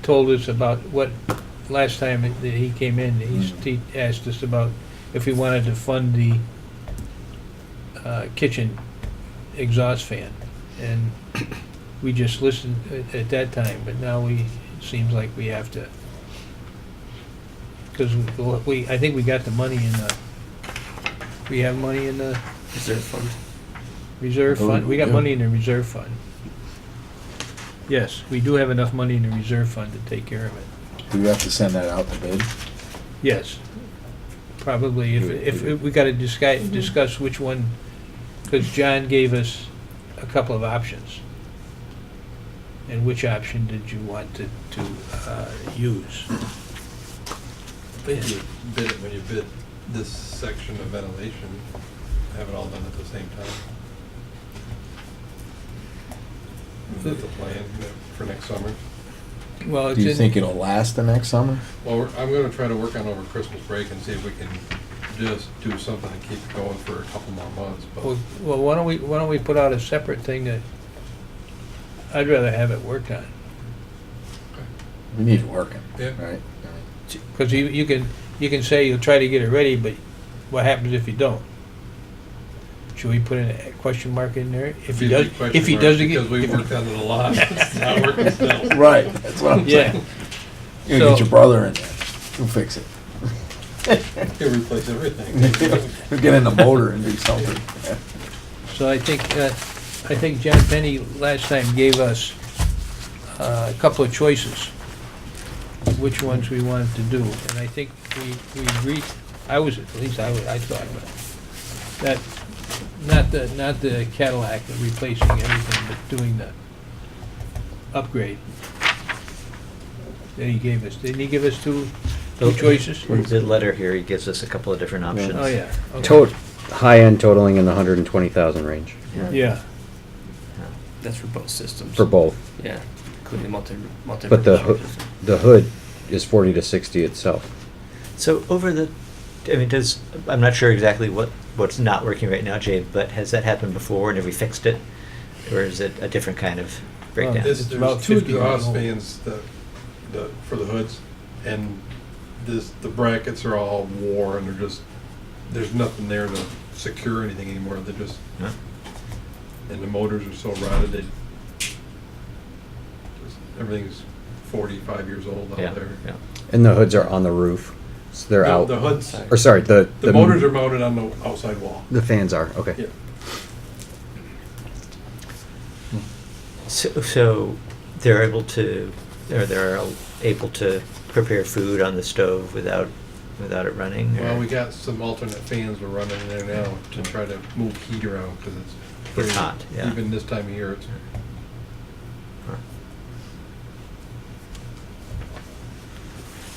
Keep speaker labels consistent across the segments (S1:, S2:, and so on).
S1: told us about what, last time that he came in, he's- he asked us about if we wanted to fund the uh, kitchen exhaust fan. And we just listened at- at that time, but now we, it seems like we have to. Because we, I think we got the money in the, we have money in the
S2: Reserve fund.
S1: reserve
S3: Oh,
S1: fund, we got
S3: yeah.
S1: money in the reserve fund. Yes, we do have enough money in the reserve fund to take care of it.
S3: Do we have to send that out to bid?
S1: Yes, probably, if,
S3: Yeah,
S1: if,
S3: yeah.
S1: we gotta discuss, discuss which one, because John gave us a couple of options. And which option did you want to, to, uh, use?
S4: When you bid, it- when you bid this section of ventilation, have it all done at the same time. Is that the plan for next summer?
S1: Well, it's
S3: Do you
S1: in-
S3: think it'll last the next summer?
S4: Well, we're- I'm gonna try to work on over Christmas break and see if we can just do something to keep it going for a couple more months, but
S1: Well, well, why don't we, why don't we put out a separate thing that, I'd rather have it worked on.
S3: We need it working,
S4: Yeah.
S3: right?
S1: Because you, you can, you can say you'll try to get it ready, but what happens if you don't? Should we put in a question mark in there? If he
S4: Be a
S1: does,
S4: big question
S1: if he
S4: mark,
S1: doesn't get.
S4: Because we
S1: if-
S4: worked on it a lot, it's not working still.
S3: Right, that's what I'm
S1: Yeah,
S3: saying. You gotta
S1: So-
S3: get your brother in there, he'll fix it.
S4: He'll replace everything.
S3: He'll get in the motor and do something.
S1: so I think, uh, I think John Penny last time gave us uh, a couple of choices, which ones we wanted to do, and I think we, we agreed, I was, at least I, was- I thought, that, not the, not the Cadillac, the replacing everything, but doing the upgrade that he gave us. Didn't he give us two, two choices?
S5: In the letter here, he gives us a couple of different options.
S1: Oh, yeah. okay.
S6: Tot, high-end totaling in the hundred and twenty thousand range
S1: Yeah,
S2: That's for both systems.
S6: for both.
S2: Yeah, including multi, multi.
S6: But the, hoo- the hood is forty to sixty itself.
S5: So over the, I mean, does, I'm not sure exactly what, what's not working right now, Jay, but has that happened before and have we fixed it? Or is it a different kind of breakdown?
S1: Well,
S4: This,
S1: It's about
S4: there's two
S1: 50 years
S4: exhaust
S1: old.
S4: fans that, the, for the hoods, and this, the brackets are all worn, and they're just, there's nothing there to secure anything anymore, they're just,
S5: Huh?
S4: and the motors are so rotted, they, just- everything's forty-five years old out
S5: Yeah,
S4: there.
S5: yeah.
S6: And the hoods are on the roof, so they're
S4: No,
S6: out.
S4: The hoods,
S6: Or sorry, the.
S4: the motors are mounted on the outside wall.
S6: The fans are, okay.
S4: Yeah.
S5: So, so they're able to, or they're able to prepare food on the stove without, without it running? or-
S4: Well, we got some alternate fans we're running in there now to try to move heat around, because it's. pretty-
S5: hot, yeah.
S4: Even this time of year, it's
S5: Huh.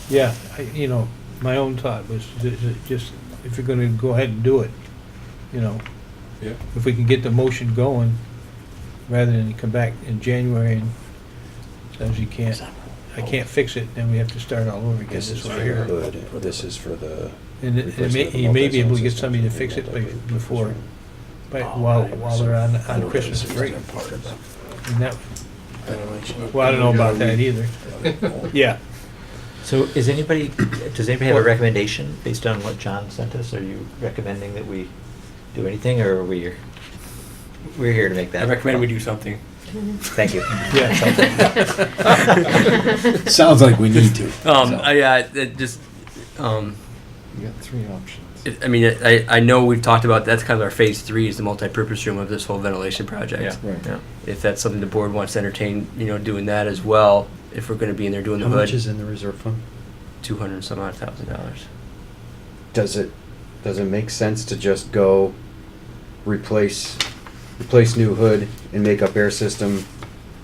S1: yeah, I- you know, my own thought was ju- ju- just, if you're gonna go ahead and do it, you know,
S4: Yeah,
S1: if we can get the motion going, rather than come back in January and says you can't, I can't fix it, then we have to start all over again.
S3: This is
S1: That's
S3: for
S1: what
S3: the
S1: I hear.
S3: hood, this is for the.
S1: And it- it may-
S3: replacement of the
S1: he may be able to get
S3: multi-sound
S1: somebody to
S3: system
S1: fix it by-
S3: multi-purpose
S1: before,
S3: room.
S1: by- while, while they're on,
S3: I
S1: on
S3: don't
S1: Christmas
S3: think
S1: break.
S3: it's part of the
S1: And that-
S3: ventilation.
S1: Well, I don't know about that either. Yeah.
S5: So is anybody, does anybody have a
S1: Well-
S5: recommendation based on what John sent us? Are you recommending that we do anything or are we, we're here to make that?
S2: I recommend we do something.
S5: Thank you.
S1: Yeah.
S3: Sounds like we need to.
S2: Um,
S3: so.
S2: I, uh, it just, um,
S3: You got three options.
S2: it- I mean, I, I know we've talked about, that's kind of our phase three is the multi-purpose room of this whole ventilation project.
S3: Right.
S5: Yeah.
S2: If that's something the board wants to entertain, you know, doing that as well, if we're gonna be in there doing the
S6: How
S2: hood.
S6: much is in the reserve fund?
S2: Two hundred and some odd thousand dollars.
S6: Does it, does it make sense to just go replace, replace new hood and make up air system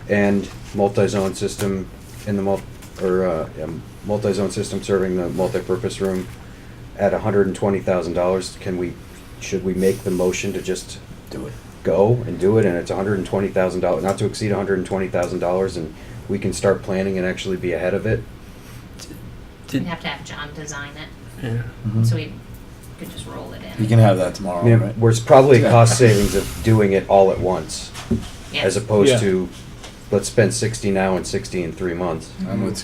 S6: and multi-zone system in the mul, or, uh, yeah, multi-zone system serving the multi-purpose room at hundred and twenty thousand dollars? Can we, should we make the motion to just
S3: Do it.
S6: go and do it, and it's hundred and twenty thousand dollars, not to exceed hundred and twenty thousand dollars, and we can start planning and actually be ahead of it.
S2: Did-
S7: We'd have to have John design it,
S2: Yeah.
S3: Mm-hmm.
S7: so we could just roll it in.
S3: Hmm. You can have that
S6: I
S3: tomorrow,
S6: mean,
S3: right?
S6: Where's probably a cost savings of doing it all at once,
S7: Yeah.
S6: as
S1: Yeah.
S6: opposed to, let's spend sixty now and sixty in three months.
S3: I'm with